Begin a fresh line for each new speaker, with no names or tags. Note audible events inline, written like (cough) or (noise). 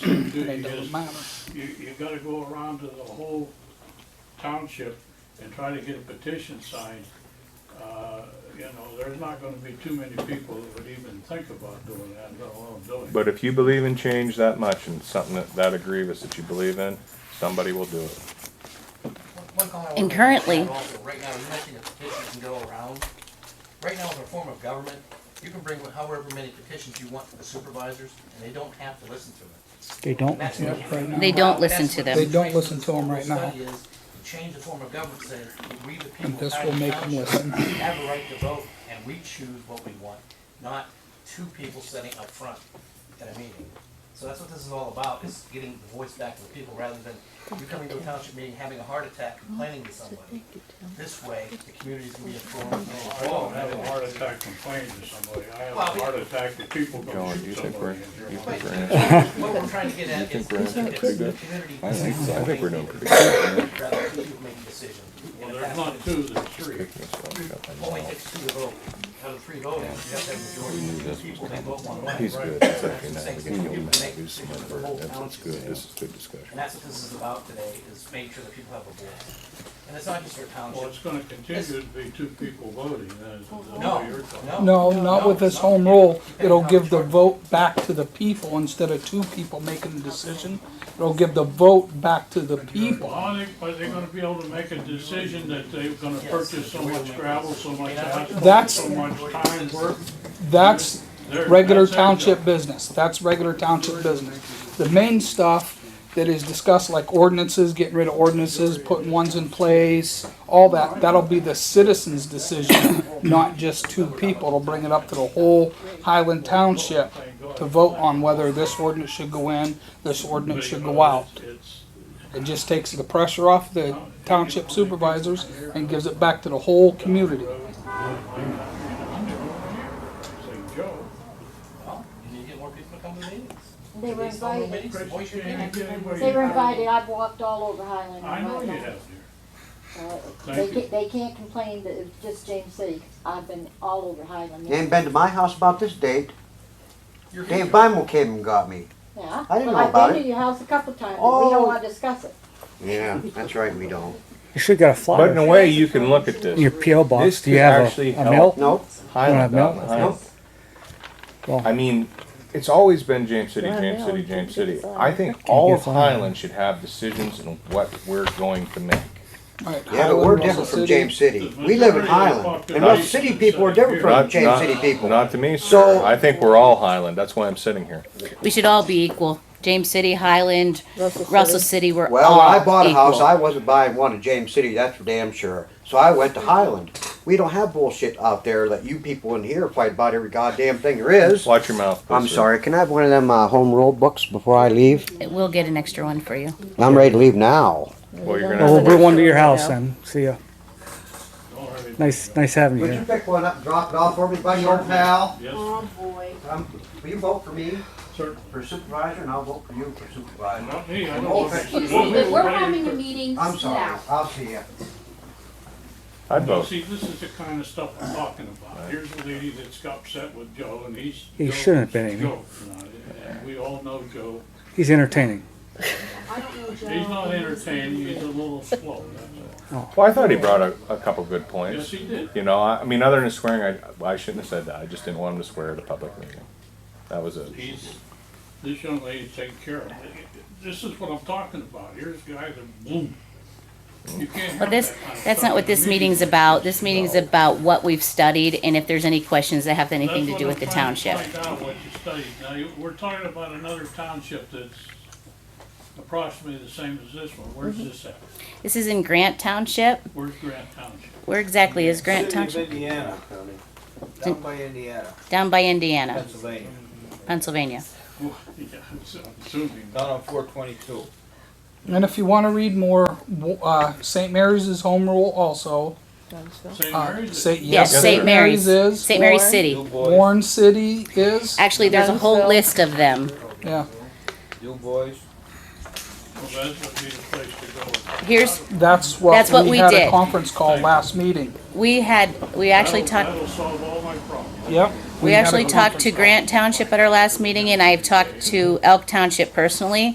you do,
It
you
don't
just,
matter.
you, you gotta go around to the whole township and try to get a petition signed. Uh, you know, there's not gonna be too many people that would even think about doing that, let alone doing it.
But if you believe in change that much and something that, that egregious that you believe in, somebody will do it.
One comment I
And
wanna-
currently-
Right now, you mentioned that petitions can go around. Right now, as a form of government, you can bring however many petitions you want to the supervisors, and they don't have to listen to it.
They don't
That's
listen to
what-
us right now.
They don't
That's
listen to
what
them.
They don't
the
listen to 'em right now.
study is, Change the form of government, say, we the people.
And this
out
will
of
make 'em
township
listen.
Have a right to vote, and we choose what we want, not two people sitting up front at a meeting. So that's what this is all about, is getting the voice back to the people, rather than you coming to a township meeting, having a heart attack, complaining to somebody. This way, the community's gonna be informed. and
I don't have a
informed.
heart attack complaining to somebody, I have a
Well, we-
heart attack that people go
John, do you
shoot
think we're,
somebody.
do
in
you
Germany.
think we're in it?
But What we're trying to get at
think
is,
we're
it's
in
the
it pretty good?
community.
I think so. I think we're doing pretty
Rather than two people making decisions.
Well, there's not two, there's three.
Only takes two to vote. Out of three voting, you have to have a majority of the people that vote one way.
He's good, that's actually not, we can
You
go
make
back, he's smart,
decisions for the whole
that's what's
township.
good, this is good discussion.
And that's what this is about today, is make sure that people have a voice. And it's not just for
Well, it's
townships.
gonna continue to be two people voting, that is, that's
No,
what you're talking.
no.
No, not with this
no.
home rule.
You can't
It'll
have
give the
choice.
vote back to the people instead of two people making the decision. It'll give the vote back to the
Well,
people.
are they, are they gonna be able to make a decision that they're gonna purchase so much gravel, so much asphalt,
That's-
so much time work?
That's
They're-
regular
that's their job.
township business. That's regular township business. The main stuff that is discussed, like ordinances, getting rid of ordinances, putting ones in place, all that, that'll be the citizens' decision, not just two people. It'll bring it up to the whole Highland Township to vote on whether this ordinance should go in, this ordinance should go out.
It's-
It just takes the pressure off the township supervisors and gives it back to the whole community.
Say, Joe,
Well, you need to get more people to come to meetings.
They were
These home rule
invited,
meetings, voice your
can't
opinion.
get anybody-
they were invited, I've walked all over Highland.
I know
Right
you
now.
have there.
Uh, They
Thank you.
can't, they can't complain that it's just James City, I've been all over Highland.
You ain't been to my house about this date.
You're
Dave
here.
Bimel came and got me.
Yeah,
I didn't
well,
know
I've
about
been
it.
to your house a couple times, but we
Oh.
don't wanna discuss it.
Yeah, that's right, we don't.
You should get a
But in a
flyer.
way, you can look at
in Your
this.
PO
This
box. Do
could
you have
actually
a, a
help.
mill?
Nope.
Highland,
Well,
Highland.
Nope.
Well-
I mean, it's always been James City,
Yeah,
James
yeah,
City,
we can
James
get
City.
some.
I think all of
get some.
Highland should have decisions in what we're going to make.
Alright,
Yeah, but
Highland
we're
rules the
different from
city.
James City. We live in Highland. And us city people are different from
Not-
James
not-
City people.
Not to me, sir.
So-
I think we're all Highland, that's why I'm sitting here.
We should all be equal. James City, Highland,
Russell City.
Russell City, we're all
Well, when I bought a house,
equal.
I wasn't buying one in James City, that's for damn sure. So I went to Highland. We don't have bullshit out there that you people in here fight about every goddamn thing there is.
Watch your mouth. please,
I'm
sir.
sorry, can I have one of them uh, home rule books before I leave?
We'll get an extra one for you.
I'm ready to leave now.
Well, you're
Well,
gonna
we'll
have to
bring
wait.
one to your house
Yeah.
then. See ya.
Don't worry.
Nice, nice having you
Would you
here.
pick one up and drop it off for me, buddy, old pal?
Yes,
Oh, boy.
Um, Will you vote for me
sir.
for supervisor and I'll vote for you for supervisor?
Not me, I
Oh,
don't.
thank
If we're having a meeting
I'm sorry,
now,
I'll see ya.
I'd
Well,
vote.
Oh, see, this is the kind of stuff I'm talking about. Here's a lady that's got upset with Joe and he's.
He
Joe-
shouldn't have been, Amy.
Joe, you know, and we all know Joe.
He's entertaining.
I don't know Joe.
He's not entertaining, he's a little slow, that's
Well, I thought he brought a, a couple good
all. Yes,
points.
he did.
You know, I, I mean, other than swearing, I, I shouldn't have said that. I just didn't want him to swear at a public meeting. That was it.
He's, this young lady taking care of him. This is what I'm talking about. Here's guys that boom. You can't
Well,
have
this,
that kind of
that's not
stuff
what
in
this
meetings.
meeting's about. This meeting's about what we've studied and if there's any questions that have anything to
That's
do
what
with the
I'm trying to
township.
Find out what you studied. Now, you- we're talking about another township that's approximately the same as this one. Where's
Mm-hmm.
this at?
This is in Grant Township.
Where's Grant Township? (laughs)
Where exactly is Grant Township?
Indiana, Tony. Down by Indiana,
Down by Indiana,
Pennsylvania.
Pennsylvania.
Well, yeah, it's- I'm assuming.
Down on four twenty-two.
And if you want to read more, w- uh, St. Mary's is home rule also.
St.
Uh,
Mary's?
St.
Yes, St. Mary's,
is.
St. Mary's
Warren.
City.
New Boys,
Warren City is.
Actually, there's a whole
Youngsville.
list of them.
Yeah,
New Boys.
Well, that would be the place to go.
Here's,
that's what
That's what we
had
did.
a conference call last meeting.
we had, we actually
That'll-
talked,
That'll solve all my problems.
Yep.
we
had a
actually talked
conference
to
call.
Grant Township at our last meeting and I've talked to Elk Township personally.